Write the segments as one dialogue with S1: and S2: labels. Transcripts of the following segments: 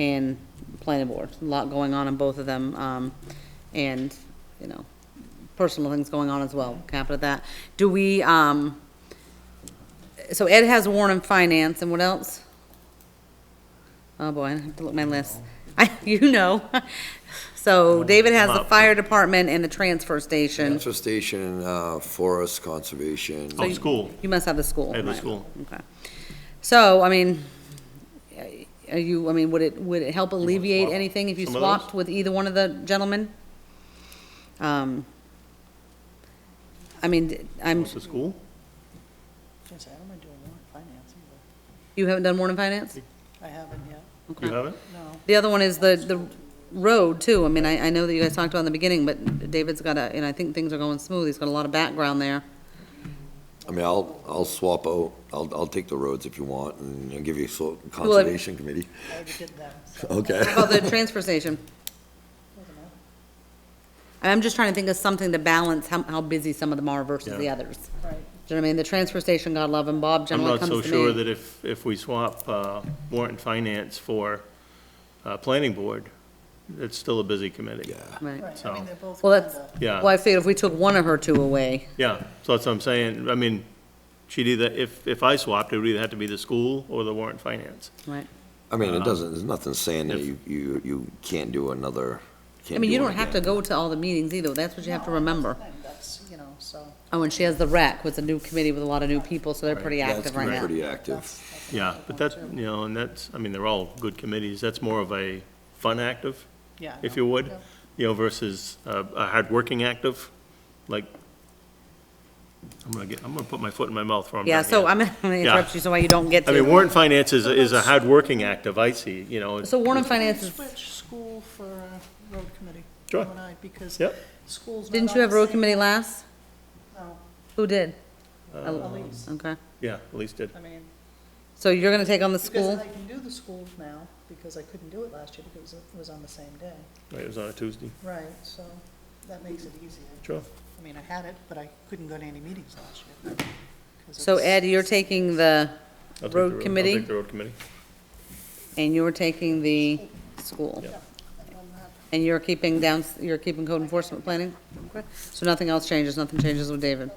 S1: and planning board. A lot going on in both of them, um, and, you know, personal things going on as well, cap it at that. Do we, um, so Ed has Warren and Finance, and what else? Oh, boy, I have to look at my list. I, you know. So David has the fire department and the transfer station.
S2: Transfer station, uh, forest conservation.
S1: So
S3: Oh,
S1: you-
S3: school.
S1: You must have the school.
S3: I have the
S1: right.
S3: school.
S1: Okay. So, I mean, are you, I mean, would it, would it help alleviate
S3: swap
S1: anything if you
S3: some of those?
S1: swapped with either one of the gentlemen? Um, I mean, I'm,
S3: What's the school?
S4: Yes, I don't mind doing warrant finance either.
S1: you haven't done Warren Finance?
S4: I haven't yet,
S3: You
S1: Okay.
S3: have it?
S4: no.
S1: The other one is the, the road too. I mean, I, I know that you guys talked about in the beginning, but David's got a, and I think things are going smooth. He's got a lot of background there.
S2: I mean, I'll, I'll swap out, I'll, I'll take the roads if you want, and I'll give you so- conservation committee.
S4: I already did that, so
S2: Okay.
S1: How about the transfer station? I'm just trying to think of something to balance how, how busy some of them are versus the
S3: Yeah.
S1: others.
S4: right.
S1: Do you know what I mean? The transfer station, God love him, Bob
S3: I'm
S1: generally
S3: not
S1: comes
S3: so
S1: to
S3: sure
S1: me.
S3: that if, if we swap uh, warrant and finance for uh, planning board, it's still a busy committee.
S2: Yeah.
S1: Right.
S4: Right, I
S3: So-
S4: mean, they're both
S1: Well, that's,
S4: kinda,
S3: Yeah.
S1: well, I figured if we took one of her two away,
S3: Yeah, so that's what I'm saying. I mean, she'd either, if, if I swapped, it would either have to be the school or the warrant and finance.
S1: right?
S2: I mean, it doesn't, there's nothing saying that
S3: Uh-huh. If-
S2: you, you, you can't do another,
S1: I
S2: can't
S1: mean, you
S2: do one
S1: don't have to
S2: again.
S1: go to all the meetings either. That's what you have to remember.
S4: that's, you know, so.
S1: Oh, and she has the rec, was a new committee with a lot of new people, so they're pretty
S2: That's
S1: active right
S2: gonna be
S1: now.
S2: Pretty active.
S4: that's
S3: Yeah,
S4: another
S3: but
S4: one,
S3: that,
S4: too.
S3: you know, and that's, I mean, they're all good committees. That's more of a fun active,
S4: Yeah, I
S3: if
S4: know.
S3: you would,
S4: Yep.
S3: you know, versus a, a hardworking active, like, I'm gonna get, I'm gonna put my foot in my mouth for a minute.
S1: Yeah, so
S3: here.
S1: I'm gonna interrupt you so you don't get
S3: I mean,
S1: to.
S3: warrant finance is, is a hardworking active, I see, you know.
S1: So Warren Finance is,
S4: Switch school for uh, road committee.
S3: Sure.
S4: you and I, Because
S3: Yep.
S4: school's not
S1: didn't
S4: on
S1: you have
S4: the
S1: road
S4: same-
S1: committee last?
S4: No,
S1: Who did?
S3: Uh,
S4: Elise.
S1: Okay.
S3: Yeah, at least did.
S4: I mean,
S1: So you're gonna take on the
S4: because
S1: school?
S4: I can do the school now, because I couldn't do it last year because it was on the same day.
S3: Right, it was on a Tuesday.
S4: Right, so that makes it easier.
S3: Sure.
S4: I mean, I had it, but I couldn't go to any meetings last year. 'cause
S1: So
S4: it's-
S1: Ed, you're taking the,
S3: I'll take the
S1: Road
S3: I'll
S1: committee?
S3: take the road committee.
S1: and you're taking the school?
S3: Yeah.
S1: And you're keeping down, you're keeping code enforcement planning? Okay. So nothing else changes, nothing changes with David?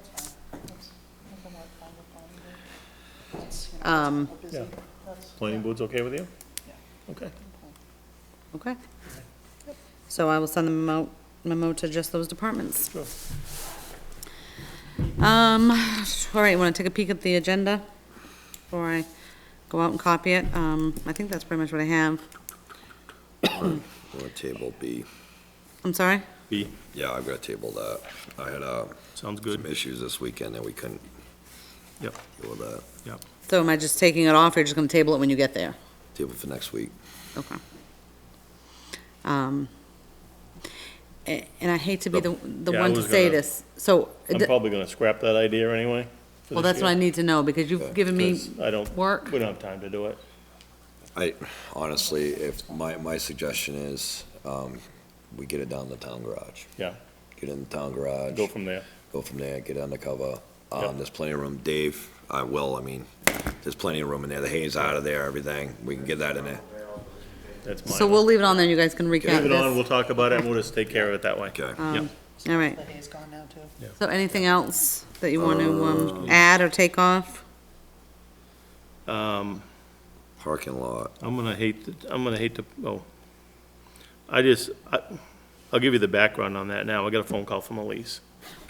S1: Um,
S3: Yeah. Planning board's okay with you? Okay.
S1: Okay. So I will send the memo, memo to just those departments.
S3: Sure.
S1: Um, all right, want to take a peek at the agenda before I go out and copy it? Um, I think that's pretty much what I have.
S2: Or table B.
S1: I'm sorry?
S3: B,
S2: Yeah, I've got table that. I had, uh,
S3: sounds
S2: some
S3: good.
S2: issues this weekend that we couldn't
S1: Uh,
S3: Yep,
S2: deal with that.
S3: yep.
S1: So am I just taking it off or you're just going to table it when you get there?
S2: Table for next week.
S1: Okay. Um, a- and I hate to be the, the
S3: Yeah, I
S1: one to
S3: was
S1: say
S3: gonna-
S1: this, so,
S3: I'm
S1: d-
S3: probably gonna scrap that idea anyway. for
S1: well,
S3: this
S1: that's what I
S3: year,
S1: need to know because you've given me
S3: 'cause I don't,
S1: work.
S3: we don't have time to do it.
S2: I, honestly, if, my, my suggestion is, um, we get it down in the town garage.
S3: Yeah,
S2: Get in the town garage.
S3: go from there.
S2: go from there, get undercover. Um,
S3: Yep.
S2: there's plenty of room, Dave, I will, I mean, there's plenty of room in there, the hay's out of there, everything, we can get that in there.
S3: That's
S1: So
S3: mine.
S1: we'll leave it on there, you guys can recap
S3: Leave it on, we'll
S1: this.
S3: talk about it, and we'll just take care of it that way.
S2: Okay.
S3: Yep.
S1: All right,
S4: The hay's gone now too.
S1: so anything else that you want to,
S3: Uh,
S1: um, add or take off?
S3: Um,
S2: Parking lot,
S3: I'm gonna hate, to- I'm gonna hate to, oh. I just, I, I'll give you the background on that now. I got a phone call from Elise.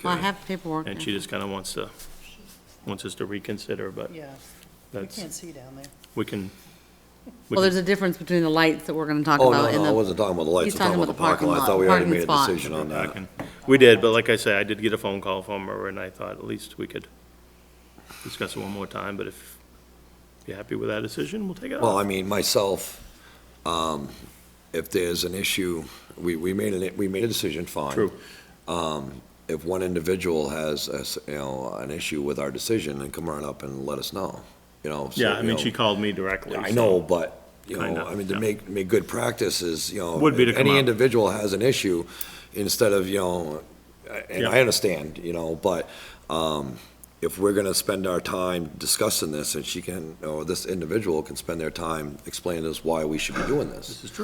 S1: Well, I
S2: okay,
S1: have paperwork.
S3: And she just kind of wants to, wants us to reconsider, but
S4: Yeah, you
S3: that's,
S4: can't see down there.
S3: we can. we
S1: Well,
S3: can-
S1: there's a difference between the lights that we're going to talk
S2: oh, no,
S1: about in
S2: no, I
S1: the,
S2: wasn't talking about the
S1: He's
S2: lights, I'm talking about the parking lot, I thought we already
S1: parking
S2: made a
S1: spot.
S2: decision on
S3: I
S2: that.
S3: can- We did, but like I say, I did get a phone call from her and I thought at least we could discuss it one more time, but if you're happy with that decision, we'll take it
S2: Well,
S3: off.
S2: I mean, myself, um, if there's an issue, we, we made an, we made a decision, fine.
S3: True.
S2: Um, if one individual has, a s- you know, an issue with our decision, then come right up and let us know, you know. so,
S3: Yeah, I
S2: you
S3: mean,
S2: know.
S3: she called me directly.
S2: Yeah, I
S3: so-
S2: know, but, you know,
S3: Kinda,
S2: I mean, to
S3: yeah.
S2: make, make good practices, you know.
S3: Would be to
S2: if
S3: come
S2: Any
S3: out.
S2: individual has an issue, instead of, you know, and
S3: Yeah.
S2: I understand, you know, but, um, if we're gonna spend our time discussing this, and she can, or this individual can spend their time explaining to us why we should be doing this.
S3: This is true.